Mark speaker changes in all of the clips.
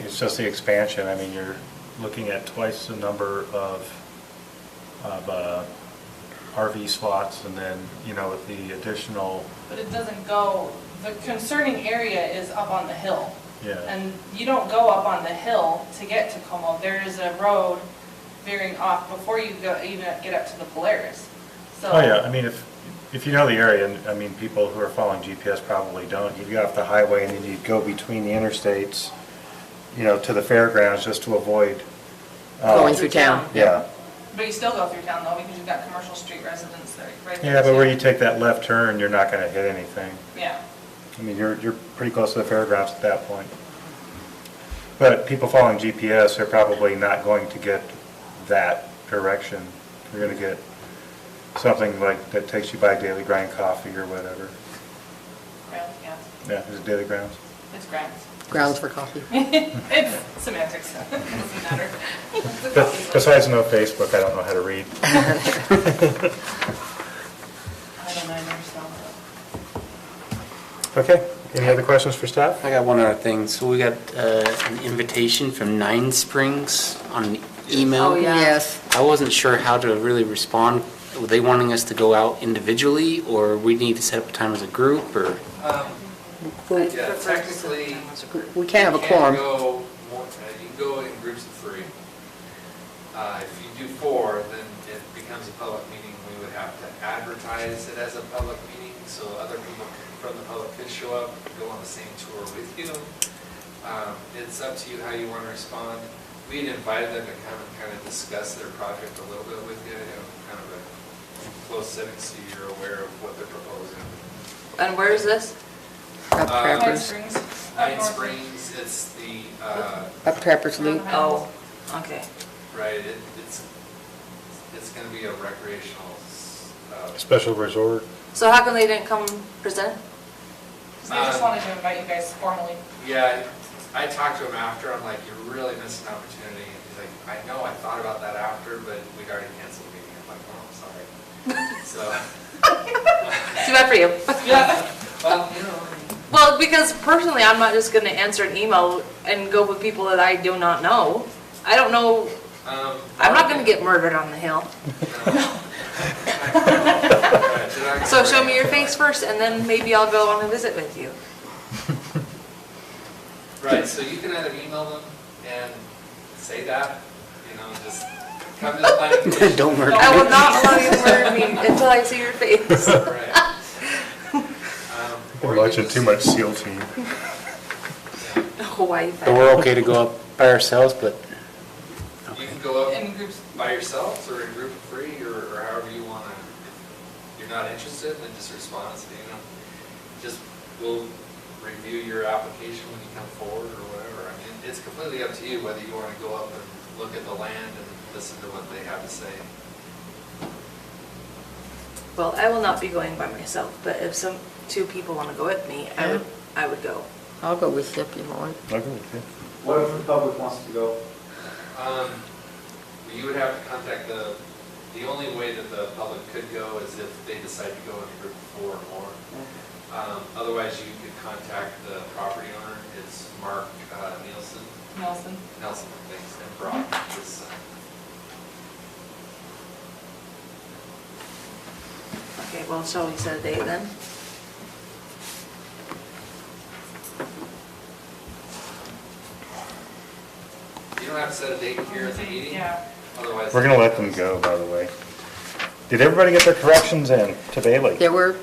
Speaker 1: it's just the expansion, I mean, you're looking at twice the number of, of uh, RV slots, and then, you know, with the additional,
Speaker 2: But it doesn't go, the concerning area is up on the hill.
Speaker 1: Yeah.
Speaker 2: And you don't go up on the hill to get to Como. There is a road veering off before you go, even get up to the Polaris. So
Speaker 1: oh, yeah, I mean, if, if you know the area, and, I mean, people who are following GPS probably don't, you'd get off the highway, and then you'd go between the interstates, you know, to the fairgrounds, just to avoid, uh,
Speaker 3: Going through town.
Speaker 1: yeah.
Speaker 2: But you still go through town though, because you've got commercial street residents there, right there.
Speaker 1: Yeah, but where you
Speaker 2: too.
Speaker 1: take that left turn, you're not gonna hit anything.
Speaker 2: Yeah.
Speaker 1: I mean, you're, you're pretty close to the fairgrounds at that point. But people following GPS are probably not going to get that direction. You're gonna get something like, that takes you by Daily Grind Coffee or whatever.
Speaker 2: Grounds, yeah.
Speaker 1: Yeah, is it Daily Grounds?
Speaker 2: It's grounds.
Speaker 3: Grounds for coffee.
Speaker 2: It's semantics. It doesn't matter. It's a
Speaker 1: Be-
Speaker 2: coffee shop.
Speaker 1: Besides no Facebook, I don't know how to read.
Speaker 2: I don't know, I never saw it.
Speaker 1: Okay, any other questions for staff?
Speaker 4: I got one other thing. So we got uh, an invitation from Nine Springs on email.
Speaker 3: Oh, yeah. Yes.
Speaker 4: I wasn't sure how to really respond. Were they wanting us to go out individually, or we need to set up a time as a group, or?
Speaker 5: Um,
Speaker 3: Well,
Speaker 5: Yeah, technically.
Speaker 3: We can't have a
Speaker 5: you
Speaker 3: quorum.
Speaker 5: go more- uh, You can go in groups of three. Uh, If you do four, then it becomes a public meeting. We would have to advertise it as a public meeting, so other people from the public could show up, go on the same tour with you. Um, It's up to you how you want to respond. We'd invited them to come and kind of discuss their project a little bit with you, you know, kind of a close setting so you're aware of what they're proposing.
Speaker 6: And where is this?
Speaker 3: Up
Speaker 2: Pine
Speaker 3: Trappers,
Speaker 2: Springs. up
Speaker 5: Nine
Speaker 2: north.
Speaker 5: Springs, it's the, uh,
Speaker 3: up Trappers Loop.
Speaker 6: Oh, okay.
Speaker 5: right, it- it's, it's going to be a recreational. uh,
Speaker 1: Special resort.
Speaker 6: So how come they didn't come present?
Speaker 2: So I just wanted to invite you guys formally.
Speaker 5: Yeah, I I talked to him after, I'm like, you really missed an opportunity. And He's like, I know, I thought about that after, but we'd already canceled the meeting. I'm like, oh, I'm sorry. So,
Speaker 6: Too bad for you.
Speaker 5: well, you know,
Speaker 6: Well, because personally, I'm not just gonna answer an email and go with people that I do not know. I don't know,
Speaker 5: um.
Speaker 6: I'm not gonna get murdered on the hill. So show me your face first and then maybe I'll go on a visit with you.
Speaker 5: Right, so you can either email them and say that, you know, just come to the planning commission.
Speaker 4: Don't murder
Speaker 6: I will
Speaker 4: me.
Speaker 6: not allow you to murder me until I see your face.
Speaker 5: Right. Um, or
Speaker 1: We're
Speaker 5: you
Speaker 1: watching
Speaker 5: can
Speaker 1: too much SEAL Team.
Speaker 6: Hawaii.
Speaker 4: So we're okay to go up by ourselves, but
Speaker 5: just- You can go up
Speaker 2: In groups,
Speaker 5: by yourselves or in a group of three or or however you want to. If you're not interested, then just respond and say, you know, just, we'll review your application when you come forward or whatever. I mean, it's completely up to you whether you want to go up and look at the land and listen to what they have to say.
Speaker 6: Well, I will not be going by myself, but if some, two people wanna go with me, I would, I would go.
Speaker 3: I'll go with you if you want.
Speaker 7: What if the public wants to go?
Speaker 5: Um, You would have to contact the, the only way that the public could go is if they decide to go in a group of four or more. Um, Otherwise, you could contact the property owner, it's Mark uh, Nielsen,
Speaker 2: Nelson.
Speaker 5: Nelson, thanks, and Brock, his son. uh,
Speaker 6: Okay, well, shall we set a date then?
Speaker 5: You don't have to set a date here at the meeting,
Speaker 2: Yeah.
Speaker 5: otherwise.
Speaker 1: We're gonna let them go, by the way. Did everybody get their corrections in to Bailey?
Speaker 3: There were,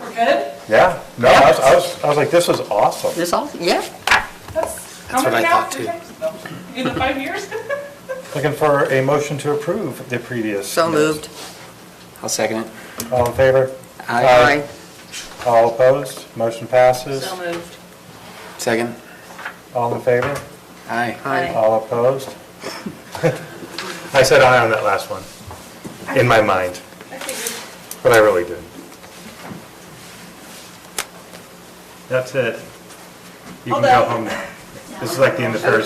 Speaker 2: We're good?
Speaker 1: Yeah, no, I was, I was, I was like, this is awesome.
Speaker 3: this all, yeah,
Speaker 2: That's, how
Speaker 4: That's what
Speaker 2: many
Speaker 4: I
Speaker 2: now?
Speaker 4: thought,
Speaker 2: Three
Speaker 4: too.
Speaker 2: times? No. In the five years?
Speaker 1: Looking for a motion to approve the previous.
Speaker 3: so moved.
Speaker 4: I'll second it.
Speaker 1: All in favor?
Speaker 3: Aye.
Speaker 1: All opposed? Motion passes.
Speaker 6: So moved.
Speaker 4: Second?
Speaker 1: All in favor?
Speaker 4: Aye.
Speaker 6: Aye.
Speaker 1: All opposed? I said aye on that last one, in my mind,
Speaker 2: I figured.
Speaker 1: but I really didn't. That's it. You can
Speaker 2: Hold
Speaker 1: go
Speaker 2: on.
Speaker 1: home now. This is like the end of Thursday.